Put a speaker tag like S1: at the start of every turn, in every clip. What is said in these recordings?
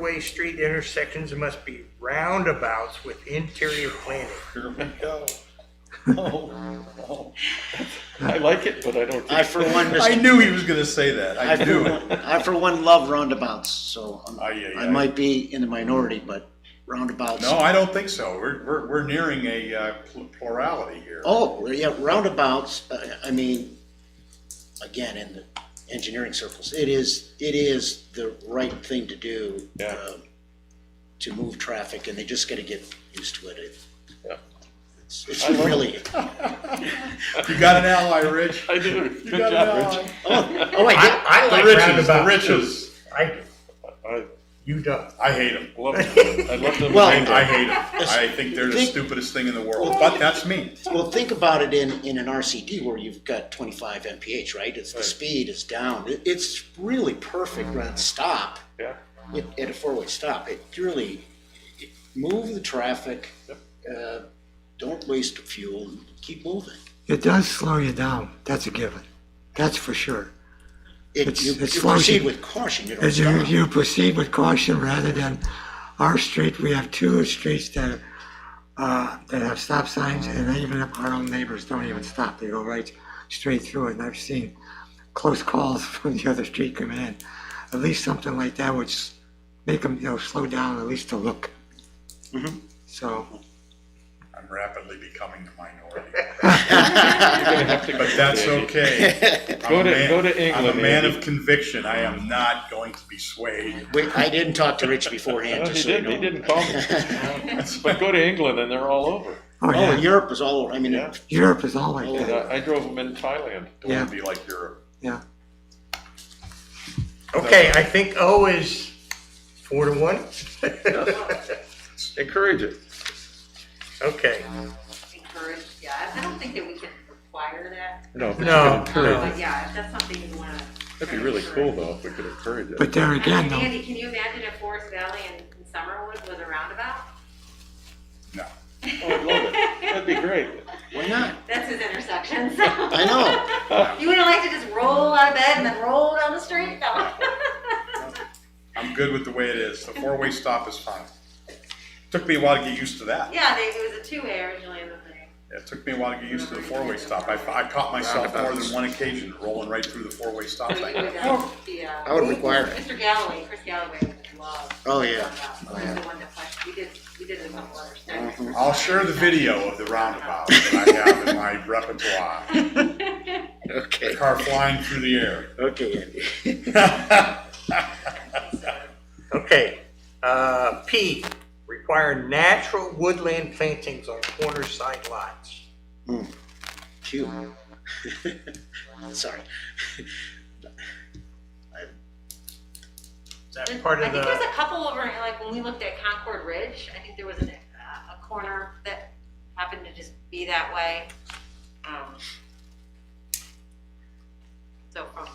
S1: way street intersections must be roundabouts with interior planning.
S2: Here we go. Oh, oh. I like it, but I don't
S3: I
S2: think.
S3: for one,
S4: I
S3: just,
S4: knew he was gonna say that. I
S3: I for
S4: knew
S3: one,
S4: it.
S3: I for one love roundabouts, so I'm-
S2: Aye, aye,
S3: I
S2: aye.
S3: might be in the minority, but roundabouts.
S4: No, I don't think so. We're, we're, we're nearing a uh, pl- plurality here.
S3: Oh, well, yeah, roundabouts, uh, I mean, again, in the engineering circles, it is, it is the right thing to do.
S2: Yeah.
S3: um, To move traffic, and they just gotta get used to it. it.
S2: Yeah.
S3: It's it's really,
S4: You got an ally, Rich.
S2: I do.
S4: You
S2: Good
S4: got an
S2: job,
S4: ally.
S2: Rich.
S3: oh, I did,
S1: I
S4: The riches, the riches.
S1: I,
S2: I
S1: you don't.
S4: I hate them.
S2: love it. I love them.
S3: Well,
S4: I hate them. I think they're the
S3: Think-
S4: stupidest thing in the world, but that's me.
S3: Well, think about it in, in an RCD where you've got twenty-five MPH, right? It's, the speed is down. It- It's really perfect on stop,
S2: Yeah,
S3: at, at a four-way stop. It really, it- move the traffic, uh, don't waste fuel, and keep moving.
S5: It does slow you down. That's a given. That's for sure.
S3: It,
S5: It's-
S3: you
S5: it's
S3: you
S5: slow
S3: proceed
S5: to-
S3: with caution, you don't
S5: As you,
S3: stop.
S5: you proceed with caution rather than our street, we have two streets that, uh, that have stop signs and even our own neighbors don't even stop. They go right straight through it. And I've seen close calls from the other street coming in. At least something like that would s- make them, you know, slow down at least to look. So,
S4: I'm rapidly becoming the minority,
S2: you're gonna have to.
S4: but that's okay. I'm
S2: Go
S4: a
S2: to-
S4: man-
S2: go to
S4: I'm
S2: England,
S4: a man
S2: Andy.
S4: of conviction. I am not going to be swayed.
S3: Wait, I didn't talk to Rich beforehand,
S2: No, he
S3: just so you
S2: did.
S3: know.
S2: He didn't call me. But go to England and they're all over.
S5: oh
S3: Oh,
S5: yeah,
S3: Europe is all, I mean,
S2: Yeah.
S5: Europe is all like
S2: And uh,
S5: that.
S2: I I drove them in Thailand.
S4: Don't want
S5: Yeah.
S4: to be like Europe.
S5: Yeah.
S1: Okay, I think O is four to one.
S2: Encourage it.
S1: Okay,
S6: encourage, yeah, I don't think that we can require that,
S2: No. but you
S1: No,
S2: could encourage
S1: no.
S2: it.
S6: but yeah, if that's something you wanna.
S2: That'd be really cool though, if we could encourage it.
S5: But there again, though,
S6: Andy, can you imagine if Forest Valley and and Summerwood was a roundabout?
S4: No.
S2: Oh, I'd love it. That'd be great.
S3: why not?
S6: That's his intersection, so.
S3: I know.
S6: You wouldn't like to just roll out of bed and then roll down the street? No.
S4: I'm good with the way it is. The four-way stop is fine. Took me a while to get used to that.
S6: Yeah, they, it was a two-way originally in the thing.
S4: It took me a while to get used to the four-way stop. I, I caught myself more than one occasion rolling right through the four-way stop
S6: But you
S4: thing.
S6: would, uh, the, uh,
S3: Oh. I would require it.
S6: Mr. Galloway, Chris Galloway would love.
S3: Oh, yeah.
S6: roundabouts.
S3: Oh,
S6: He was
S3: yeah. Mm-hmm.
S6: the one that pushed, we did, we did a couple other studies.
S4: I'll share the video of the roundabout that I have in my repertoire.
S3: Okay,
S4: Car flying through the air.
S3: okay, Andy.
S1: okay. Uh, P, require natural woodland plantings on corner side lots.
S3: Cute. Sorry.
S1: That part
S6: Mm-hmm. I
S1: of
S6: think there's
S1: the,
S6: a couple over, like, when we looked at Concord Ridge, I think there was a, a corner that happened to just be that way. Um, So from,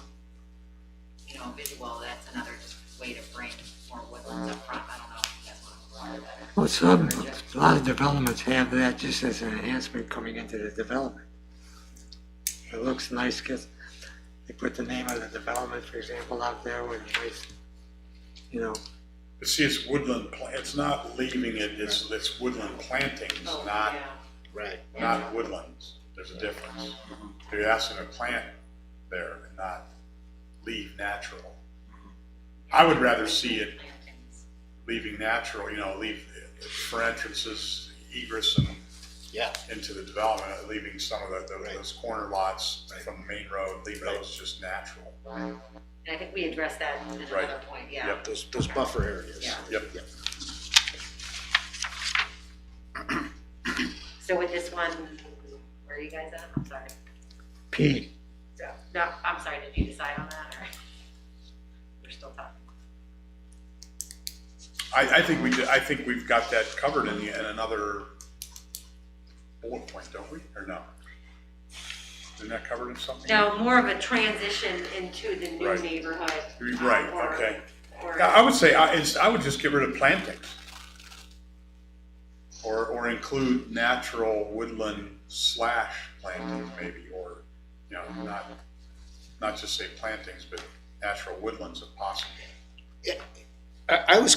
S6: you know, visual, that's another just way to bring more woodlands up front, I don't know if you guys want to require that.
S5: Well, some, a lot of developments have that just as an enhancement coming into the development. It looks nice because they put the name of the development, for example, out there with a nice, you know,
S4: But see, it's woodland, pla- it's not leaving it, it's, it's woodland plantings,
S6: Oh,
S4: not,
S6: yeah.
S3: Right.
S4: not woodlands. There's a difference. You're asking to plant there and not leave natural. I would rather see it
S6: Plantings.
S4: leaving natural, you know, leave for entrances, egress and
S3: Yeah.
S4: into the development, leaving some of the, the- those corner lots from the main road, leave those just natural.
S6: And I think we addressed that at
S4: Right.
S6: another point, yeah.
S4: Yep.
S3: Those, those buffer areas.
S6: Yeah.
S4: Yep.
S6: So with this one, where are you guys at? I'm sorry.
S5: P.
S6: No, I'm sorry, did you decide on that, or? We're still talking.
S4: I, I think we, did- I think we've got that covered in, the- in another bullet point, don't we, or no? Isn't that covered in something?
S6: No, more of a transition into the new
S4: Right.
S6: neighborhood.
S4: You're
S6: uh,
S4: Right,
S6: or-
S4: okay.
S6: or-
S4: I I would say, I, it's- I would just get rid of plantings. Or, or include natural woodland slash plantings maybe, or, you know, not, not just say plantings, but natural woodlands if possible.
S3: I, I was